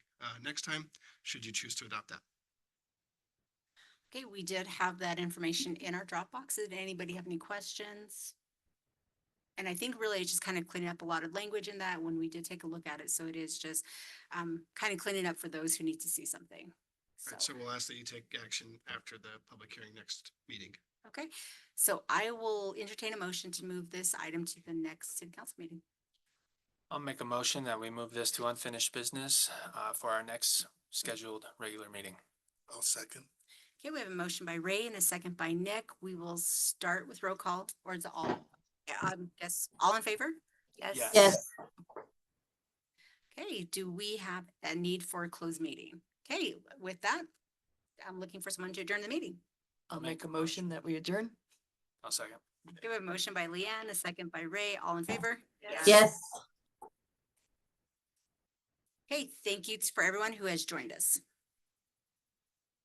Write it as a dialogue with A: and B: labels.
A: uh, next time, should you choose to adopt that.
B: Okay, we did have that information in our Dropbox. Did anybody have any questions? And I think really it's just kind of cleaning up a lot of language in that when we did take a look at it. So it is just um, kind of cleaning up for those who need to see something.
A: All
B: So,
A: right, so we'll ask that you take action after the public hearing next meeting.
B: okay, so I will entertain a motion to move this item to the next city council meeting.
C: I'll make a motion that we move this to unfinished business uh, for our next scheduled regular meeting.
D: I'll second.
B: Okay, we have a motion by Ray and a second by Nick. We will start with roll call or is it all? Yeah, Um, yes, all in favor? Yes.
C: Yes.
E: Yes,
B: Okay, do we have a need for a closed meeting? Okay, with that, I'm looking for someone to adjourn the meeting.
E: I'll make a motion that we adjourn.
C: I'll second.
B: Do we have a motion by Leanne, a second by Ray, all in favor?
E: Yes.
B: Okay, thank you for everyone who has joined us.